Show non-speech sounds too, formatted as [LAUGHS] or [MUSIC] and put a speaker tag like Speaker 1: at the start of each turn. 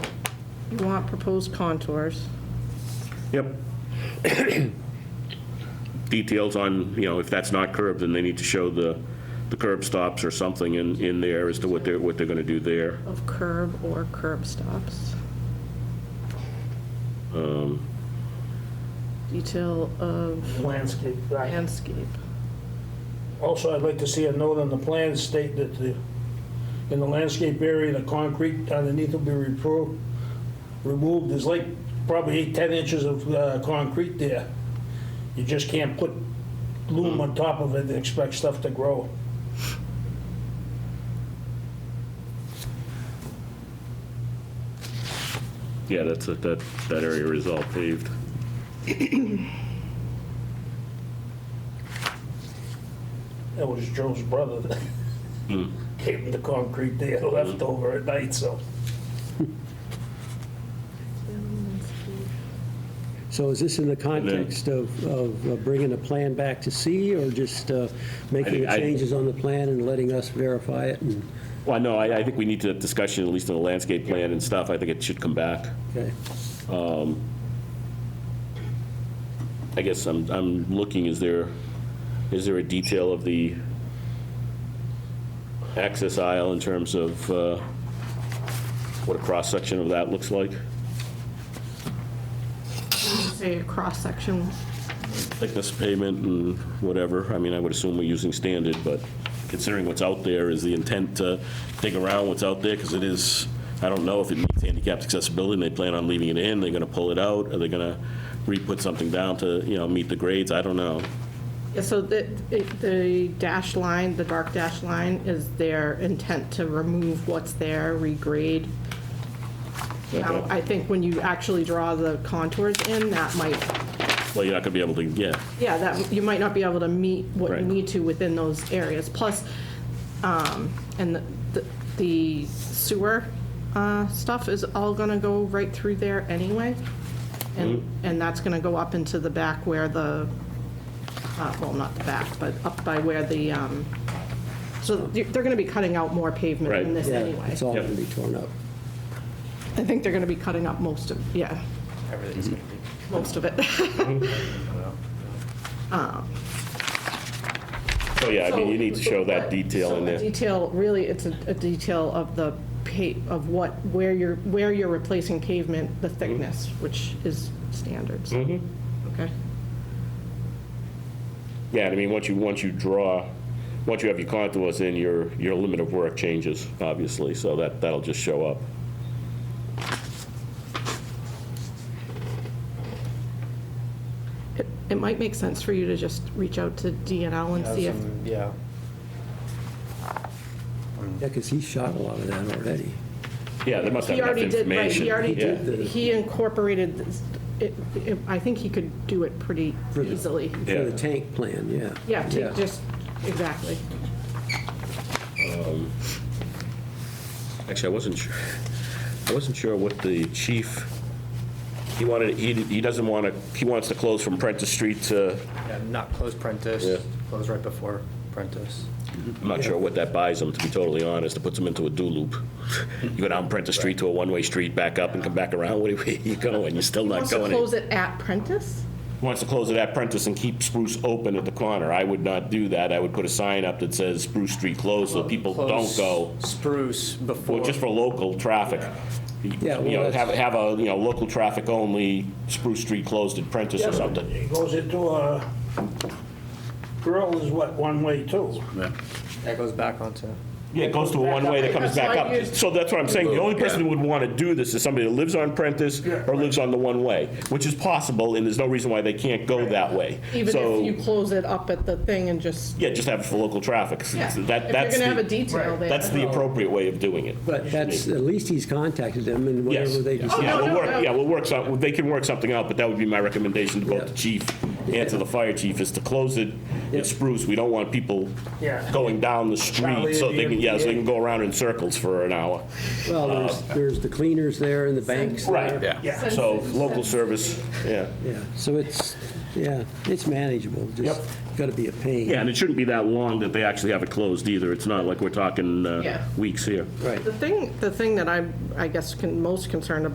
Speaker 1: You want proposed contours.
Speaker 2: Yep. Details on, you know, if that's not curb, then they need to show the, the curb stops or something in, in there as to what they're, what they're gonna do there.
Speaker 1: Of curb or curb stops. Detail of
Speaker 3: landscape. right.
Speaker 1: landscape.
Speaker 3: Also, I'd like to see a note on the plan state that the, in the landscape area, the concrete underneath will be repro, removed, there's like probably eight, 10 inches of uh, concrete there. You just can't put loom on top of it and expect stuff to grow.
Speaker 2: Yeah, that's, it, that, that area is all paved.
Speaker 3: That was Joe's brother that gave him the concrete there left over at night, so.
Speaker 4: So is this in the context of, of uh, bringing the plan back to C, or just uh, making the
Speaker 2: I- I-
Speaker 4: changes on the plan and letting us verify it? and-
Speaker 2: Well, no, I, I think we need to have discussion, at least on the landscape plan and stuff. I think it should come back.
Speaker 4: Okay.
Speaker 2: I guess I'm, I'm looking, is there, is there a detail of the access aisle in terms of uh, what a cross-section of that looks like?
Speaker 1: Say a cross-section.
Speaker 2: thickness of pavement and whatever. I mean, I would assume we're using standard, but considering what's out there, is the intent to dig around what's out there? Because it is, I don't know if it meets handicapped accessibility, and they plan on leaving it in, they're going to pull it out, are they going to re-put something down to, you know, meet the grades? I don't know.
Speaker 1: Yeah, so the, it- the dash line, the dark dash line is their intent to remove what's there, regrade. Now,
Speaker 2: Okay.
Speaker 1: I think when you actually draw the contours in, that might
Speaker 2: Well, you're not going to be able to, yeah,
Speaker 1: Yeah, that, you might not be able to meet what you
Speaker 2: Right.
Speaker 1: need to within those areas. Plus, um, and the- the- the sewer uh, stuff is all going to go right through there anyway. And,
Speaker 2: Mm-hmm.
Speaker 1: and that's going to go up into the back where the, uh, well, not the back, but up by where the, um, so they're going to be cutting out more pavement in
Speaker 2: Right.
Speaker 1: this
Speaker 4: Yeah,
Speaker 1: anyway.
Speaker 4: It's all
Speaker 2: Yep.
Speaker 4: going to be torn up.
Speaker 1: I think they're going to be cutting up most of, yeah. Most of it. [LAUGHS]
Speaker 2: so Oh, yeah, I mean, you
Speaker 1: So-
Speaker 2: need to show that
Speaker 1: but-
Speaker 2: detail
Speaker 1: so
Speaker 2: in
Speaker 1: a
Speaker 2: there.
Speaker 1: Detail, really, it's a a detail of the pa, of what, where you're, where you're replacing pavement, the
Speaker 2: Mm-hmm.
Speaker 1: thickness, which is standards. Okay?
Speaker 2: Yeah, I mean, once you, once you draw, once you have your contours in, your, your limit of work changes, obviously, so that, that'll just show up.
Speaker 1: It, it might make sense for you to just reach out to DNL and see if,
Speaker 5: Yeah.
Speaker 4: Yeah, because he shot a lot of that already.
Speaker 2: Yeah, they must have
Speaker 1: he
Speaker 2: enough
Speaker 1: already did, right,
Speaker 2: information.
Speaker 1: he already
Speaker 2: Yeah.
Speaker 1: did, he incorporated, this- it, it- I think he could do it pretty
Speaker 4: For the-
Speaker 1: easily.
Speaker 4: For the
Speaker 2: Yeah.
Speaker 4: tank plan, yeah.
Speaker 1: Yeah, to just, exactly.
Speaker 2: Actually, I wasn't sure, I wasn't sure what the chief, he wanted, he, he doesn't want to, he wants to close from Prentice Street to,
Speaker 5: Yeah, not close
Speaker 2: Yeah.
Speaker 5: Prentice, close right before Prentice.
Speaker 2: I'm not sure what that buys him, to be totally honest, it puts him into a do loop. You go down Prentice Street to a one-way street, back up and come back around, where are you going? You're still not
Speaker 1: Wants to
Speaker 2: going.
Speaker 1: close it at Prentice?
Speaker 2: Wants to close it at Prentice and keep Spruce open at the corner. I would not do that, I would put a sign up that says Spruce Street closed, so people don't
Speaker 5: Close
Speaker 2: go.
Speaker 5: Spruce before.
Speaker 2: Well, just for local traffic. You
Speaker 4: Yeah, well,
Speaker 2: know,
Speaker 4: that's-
Speaker 2: have, have a, you know, local traffic only, Spruce Street closed at Prentice or something.
Speaker 3: It goes into a, girl is what, one way too?
Speaker 5: That goes back onto,
Speaker 2: Yeah, it goes to a one-way that comes back up. So that's what I'm saying, the only person who would want to do this is somebody that lives on Prentice or lives on the one-way, which is possible, and there's no reason why they can't go that way.
Speaker 1: Even if you
Speaker 2: So,
Speaker 1: close it up at the thing and just,
Speaker 2: yeah, just have it for local traffic.
Speaker 1: yeah, if
Speaker 2: So
Speaker 1: you're
Speaker 2: That, that's
Speaker 1: gonna have a
Speaker 2: the,
Speaker 1: detail there.
Speaker 2: that's the appropriate way of doing it.
Speaker 4: But that's, at least he's contacted them, and
Speaker 2: Yes.
Speaker 4: whatever they
Speaker 2: Yeah,
Speaker 4: decide.
Speaker 1: no,
Speaker 2: we'll
Speaker 1: no,
Speaker 2: work-
Speaker 1: no.
Speaker 2: Yeah, we'll work some, they can work something out, but that would be my recommendation to both
Speaker 4: Yeah.
Speaker 2: the chief and to the fire chief, is to close it at Spruce. We don't want people
Speaker 3: Yeah.
Speaker 2: going down the street,
Speaker 3: Probably
Speaker 2: so
Speaker 3: the
Speaker 2: they can, yeah, so they
Speaker 3: MBA.
Speaker 2: can go around in circles for an hour.
Speaker 4: Well, there's, there's the cleaners there and the banks.
Speaker 2: Uh, Right,
Speaker 3: Yeah.
Speaker 2: So, local service, yeah.
Speaker 4: Yeah, so it's, yeah, it's manageable, just got to be a pain.
Speaker 2: Yeah, and it shouldn't be that long that they actually have it closed either. It's not like we're talking uh,
Speaker 1: Yeah.
Speaker 2: weeks here.
Speaker 4: Right.
Speaker 1: The thing, the thing that I'm, I guess, con- most concerned about